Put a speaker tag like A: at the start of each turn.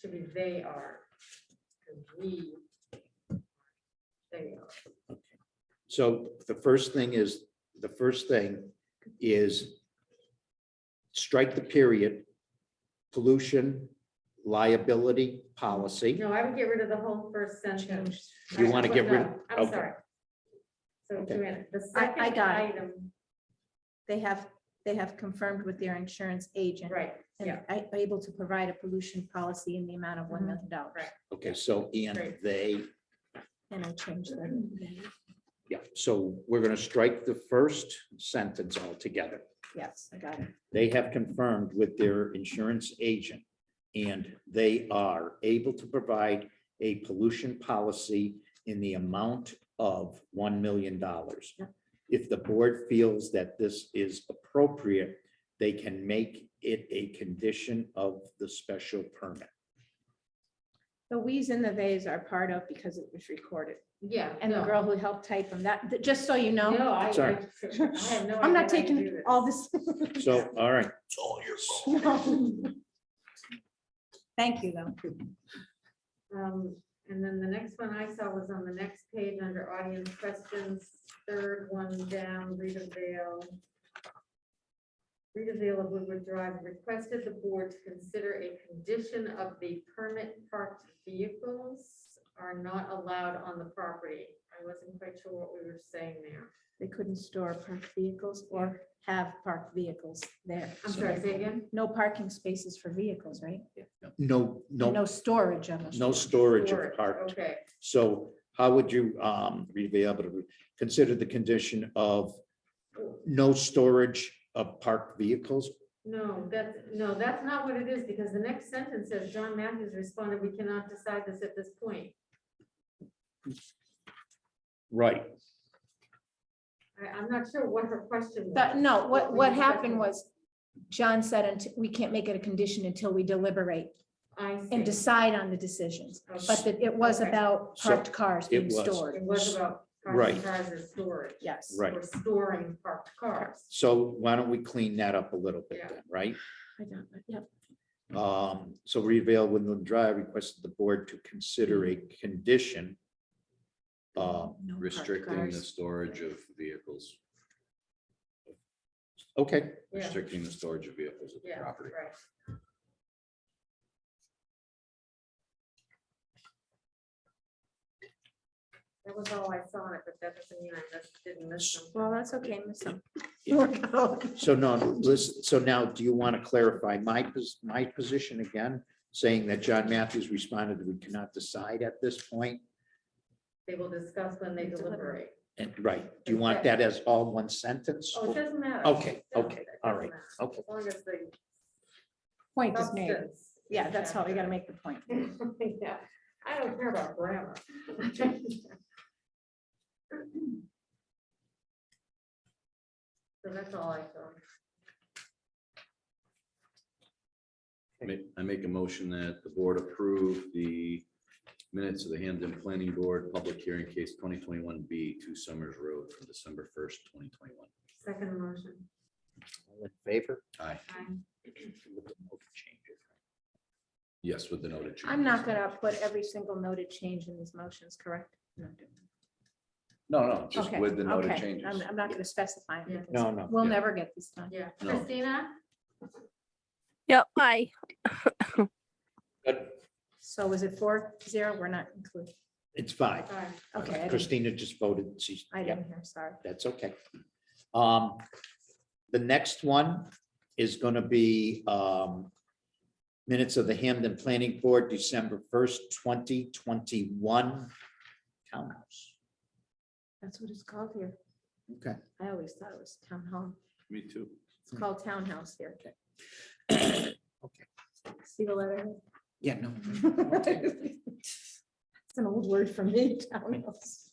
A: should be they are. 'cause We. They are.
B: So the first thing is, the first thing is strike the period pollution liability policy.
A: No, I would get rid of the whole first sentence.
B: You wanna get rid-
A: No, I'm
B: okay.
A: sorry. So
B: Okay.
A: Joanna, the
C: I- I
A: second
C: got it.
A: item,
C: They have, they have confirmed with their insurance agent.
A: right, yeah.
C: And I able to provide a pollution policy in the amount of one
A: Mhm.
C: million dollars.
A: Right.
B: Okay, so and
A: Great.
B: they,
C: And I changed that.
A: Mm-hmm.
B: yeah, so we're gonna strike the first sentence altogether.
C: Yes, I got it.
B: They have confirmed with their insurance agent, and they are able to provide a pollution policy in the amount of one million dollars.
C: Yep.
B: If the board feels that this is appropriate, they can make it a condition of the special permit.
C: The we's and the they's are part of because it was recorded.
A: Yeah.
C: And the
A: no.
C: girl who helped type them, that, that- just so you know,
A: No, I. I-
B: Sorry.
A: I have no
C: I'm
A: idea how
C: not
A: you do
C: taking
A: this.
C: all this.
B: So, all right,
C: No. Thank you, though.
A: Um, and then the next one I saw was on the next page under audience questions, third one down, Rita Vale. Rita Vale of Woodward Drive requested the board to consider a condition of the permit parked vehicles are not allowed on the property. I wasn't quite sure what we were saying there.
C: They couldn't store parked vehicles or have parked vehicles there.
A: I'm sorry, say again?
C: No parking spaces for vehicles, right?
B: no,
C: And No
B: no,
C: storage of them.
B: no storage
A: Storage,
B: of parked
A: Okay,
B: So how would you um be able to consider the condition of no storage of parked vehicles?
A: no, that's, no, that's not what it is, because the next sentence says, John Matthews responded, we cannot decide this at this point.
B: Right,
A: I, I'm not sure what her question was.
C: But no, what,
A: we
C: what
A: discussed
C: happened
A: it.
C: was, John said, "Unt- we can't make it a condition until we deliberate
A: I see.
C: and decide on the decisions.
A: Okay.
C: But that it was
A: Okay.
C: about
B: So,
C: parked cars
B: it
C: being
B: was.
C: stored.
A: It was about cars
B: Right.
A: and cars as storage.
C: Yes.
B: Right.
A: Or storing parked cars.
B: so why don't we clean that up a little bit then, right?
C: I got it, yep.
B: Um, so Revale Woodland Drive requested the board to consider a condition. Um,
C: No parked
D: Restricting the
C: cars.
D: storage of vehicles,
B: okay,
A: Yeah,
D: restricting the storage of vehicles at
A: Yeah,
D: the property.
A: right. That was all I saw on it, but that doesn't mean I missed, didn't miss them.
C: Well, that's okay, miss them.
B: so no, listen, so now do you want to clarify my pos- my position again? Saying that John Matthews responded, we cannot decide at this point,
A: They will discuss when they
C: Deliberate.
A: deliberate.
B: and right, do you want that as all one sentence?
A: Oh, it doesn't matter.
B: Okay,
A: No,
B: okay,
A: it doesn't
B: all right,
A: matter.
B: okay.
A: As long as the
C: Point is made.
A: substance.
C: Yeah, that's how we gotta make the point.
A: Yeah, I don't care about grammar. So that's all I saw.
D: Ma- I make a motion that the board approve the minutes of the Hampden Planning Board Public Hearing Case twenty twenty-one B, Two Summers Road from December first, twenty twenty-one.
A: Second motion.
B: All in favor?
D: Aye,
A: Aye.
B: With the note changes.
D: yes, with the noted. changes.
C: I'm not gonna put every single noted change in these motions, correct?
D: No, no, just
C: Okay,
D: with the noted
C: okay.
D: changes.
C: I'm, I'm not gonna specify. it
A: Yeah.
C: because
B: No, no.
C: We'll
D: Yeah.
C: never get this done.
A: Yeah,
D: No.
A: Christina?
E: Yep, aye.
B: Good.
C: So was it four, zero? We're not included.
B: It's five.
A: Sorry.
C: Okay, I didn't-
B: Christina just voted. She's,
C: I
B: yeah,
C: didn't hear, sorry.
B: that's okay. Um, the next one is gonna be, um, minutes of the Hamden Planning Board, December first, twenty twenty-one. Townhouse.
C: That's what it's called here.
B: Okay.
C: I always thought it was town hall.
D: Me too.
C: It's called townhouse here.
B: Okay.
C: See the letter?
B: Yeah, no. okay.
C: It's an old word for me, townhouse.